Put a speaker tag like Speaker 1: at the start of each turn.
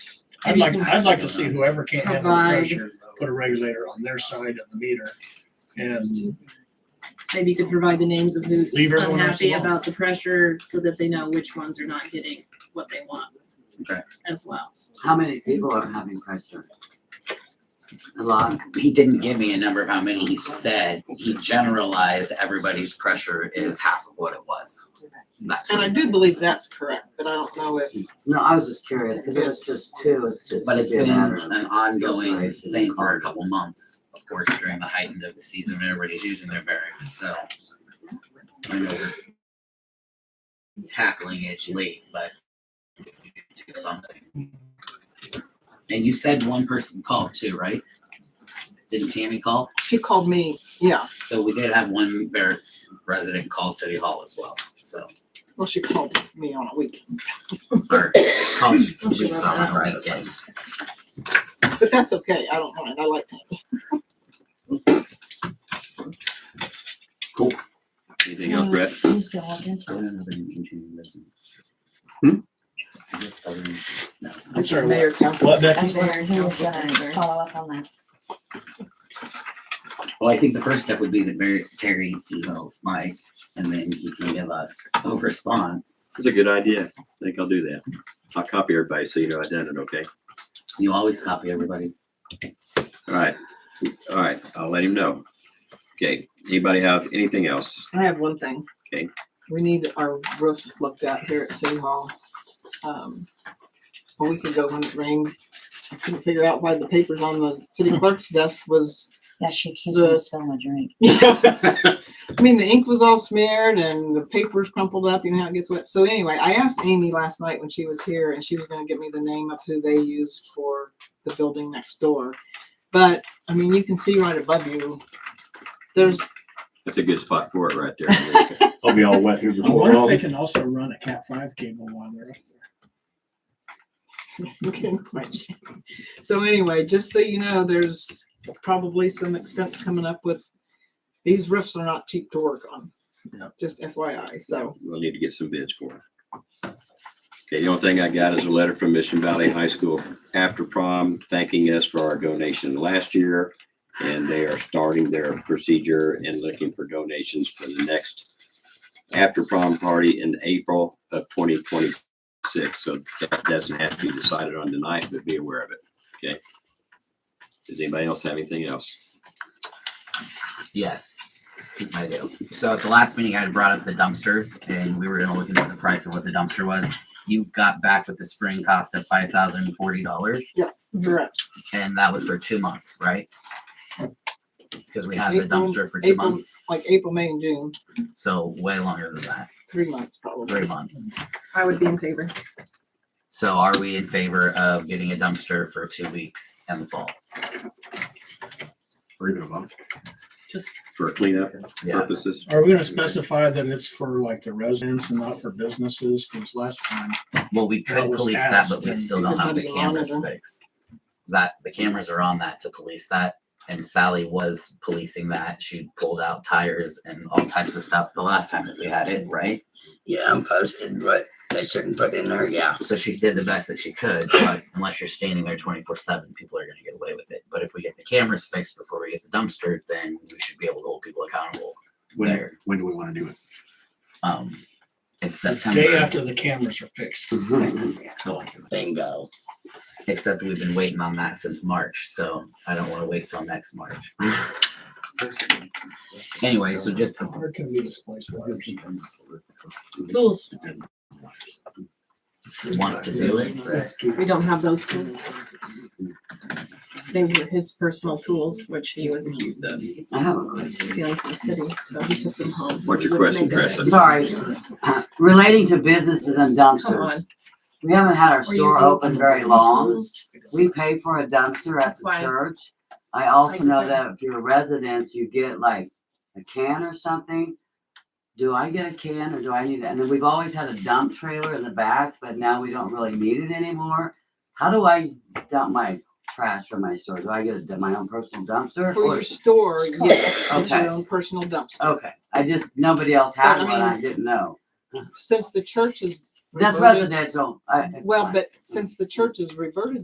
Speaker 1: I'd like, I'd like to see
Speaker 2: who
Speaker 1: whoever can't handle the
Speaker 2: Provide.
Speaker 1: pressure, put a regulator on their side of the meter and
Speaker 2: Maybe you could provide the names of who's
Speaker 1: Leave everyone else
Speaker 2: unhappy
Speaker 1: alone.
Speaker 2: about the pressure so that they know which ones are not getting what they want.
Speaker 3: Okay.
Speaker 2: As well.
Speaker 4: How many people are having pressure? A lot.
Speaker 3: He didn't give me a number of how many he said. He generalized everybody's pressure is half of what it was. That's
Speaker 5: And
Speaker 3: what
Speaker 5: I
Speaker 3: he
Speaker 5: do
Speaker 3: said.
Speaker 5: believe that's correct, but I don't know if,
Speaker 4: No, I was just curious, because it was just two, it's just.
Speaker 3: But it's
Speaker 4: it'd
Speaker 3: been
Speaker 4: be a matter of-
Speaker 3: an ongoing thing for a couple months, of course, during the height end of the season when everybody's using their barracks, so. I know we're tackling it late, but we could do something. And you said one person called too, right? Didn't Tammy call?
Speaker 5: she called me, yeah,
Speaker 3: So we did have one bear resident call City Hall as well, so.
Speaker 5: well, she called me on a weekend,
Speaker 3: Or call City
Speaker 2: wrote
Speaker 3: Hall on a weekend.
Speaker 5: but that's okay, I don't mind, I like that.
Speaker 6: Anything else, Brett?
Speaker 3: I don't have any continuing business.
Speaker 6: Hmm?
Speaker 3: I guess other than- no.
Speaker 1: I'm sorry, what-
Speaker 5: Mayor, council.
Speaker 1: what, Becky?
Speaker 7: And there, he was gonna follow up on that.
Speaker 3: Well, I think the first step would be that Mary, Terry emails Mike and then he can give us a response.
Speaker 6: That's a good idea. I think I'll do that. I'll copy everybody so you know I done it, okay?
Speaker 3: You always copy everybody.
Speaker 6: All right, all right, I'll let him know. Okay, anybody have anything else?
Speaker 5: I have one thing.
Speaker 6: Okay.
Speaker 5: We need our roof looked at here at City Hall. Um, A week ago when it rained, I couldn't figure out why the papers on the city clerk's desk was,
Speaker 7: Yeah, she keeps
Speaker 5: The-
Speaker 7: me spilling my drink.
Speaker 5: I mean, the ink was all smeared and the papers crumpled up, you know how it gets wet. So anyway, I asked Amy last night when she was here and she was gonna give me the name of who they used for the building next door. But, I mean, you can see right above you, there's
Speaker 6: That's a good spot for it right there.
Speaker 8: I'll be all wet here
Speaker 1: I
Speaker 8: before
Speaker 1: wonder if they
Speaker 8: long.
Speaker 1: can also run a cat five cable while they're up there.
Speaker 5: Okay, quite. So anyway, just so you know, there's probably some expense coming up with, these roofs are not cheap to work on.
Speaker 3: No.
Speaker 5: Just FYI, so.
Speaker 6: We'll need to get some bids for it. Okay, the only thing I got is a letter from Mission Valley High School after prom thanking us for our donation last year. And they are starting their procedure and looking for donations for the next after prom party in April of twenty twenty-six. So that doesn't have to be decided on tonight, but be aware of it, okay? Does anybody else have anything else?
Speaker 3: Yes, I do. So at the last meeting, I had brought up the dumpsters and we were gonna look into the price of what the dumpster was. You got back with the spring cost of five thousand and forty dollars
Speaker 5: Yes, correct.
Speaker 3: and that was for two months, right? Because we had the
Speaker 5: April-
Speaker 3: dumpster for two
Speaker 5: April-
Speaker 3: months,
Speaker 5: Like April, May, and June,
Speaker 3: so way longer than that,
Speaker 5: three months probably.
Speaker 3: three months.
Speaker 2: I would be in favor.
Speaker 3: So are we in favor of getting a dumpster for two weeks in the fall?
Speaker 8: Or even a month.
Speaker 6: For cleanup
Speaker 3: Yeah,
Speaker 6: purposes?
Speaker 1: Are we gonna specify that it's for like the residents and not for businesses? Cause last time,
Speaker 3: well, we
Speaker 1: That
Speaker 3: could
Speaker 1: was
Speaker 3: police that, but
Speaker 1: asked
Speaker 3: we
Speaker 1: and-
Speaker 3: still don't have the
Speaker 5: Everybody
Speaker 3: cameras
Speaker 5: monitor.
Speaker 3: fixed. That, the cameras are on that to police that, and Sally was policing that, she pulled out tires and all types of stuff the last time that we had it, right?
Speaker 9: Yeah, I'm posted, but they shouldn't put in there, yeah.
Speaker 3: So she did the best that she could, but unless you're standing there twenty four seven, people are gonna get away with it, but if we get the cameras fixed before we get the dumpster, then we should be able to hold people accountable
Speaker 8: When,
Speaker 3: there,
Speaker 8: when do we wanna do it?
Speaker 3: um, it's
Speaker 1: day
Speaker 3: September,
Speaker 1: after the cameras are fixed.
Speaker 8: Oh,
Speaker 9: Bingo.
Speaker 3: except we've been waiting on that since March, so I don't wanna wait till next March. Anyway, so just
Speaker 1: How hard can we displace wires?
Speaker 2: Tools.
Speaker 3: want to do it, but
Speaker 2: We don't have those tools. They were his personal tools, which he was accused of
Speaker 4: I have a question.
Speaker 2: stealing from the city, so he took them home. so
Speaker 6: What's
Speaker 2: we
Speaker 6: your
Speaker 2: wouldn't
Speaker 6: question,
Speaker 2: make it.
Speaker 6: Preston?
Speaker 4: Sorry, uh, relating to businesses and
Speaker 2: Come
Speaker 4: dumpsters,
Speaker 2: on.
Speaker 4: we haven't had our
Speaker 2: we're using
Speaker 4: store open very
Speaker 2: those
Speaker 4: long.
Speaker 2: tools.
Speaker 4: We pay for a dumpster at
Speaker 2: That's
Speaker 4: the
Speaker 2: why-
Speaker 4: church. I also
Speaker 2: can
Speaker 4: know
Speaker 2: say-
Speaker 4: that if you're a resident, you get like a can or something. Do I get a can or do I need, it? and then we've always had a dump trailer in the back, but now we don't really need it anymore. How do I dump my trash from my store? Do I get a- my own personal dumpster?
Speaker 5: For
Speaker 4: or-
Speaker 5: your store, yes, it's
Speaker 4: Okay.
Speaker 5: your own personal dumpster.
Speaker 4: Okay, I just, nobody else
Speaker 5: But,
Speaker 4: had
Speaker 5: I
Speaker 4: one, I didn't know.
Speaker 5: Since the church is.
Speaker 4: That's
Speaker 5: reverted-
Speaker 4: residential, I. it's
Speaker 5: Well,
Speaker 4: fine.
Speaker 5: but since the church has reverted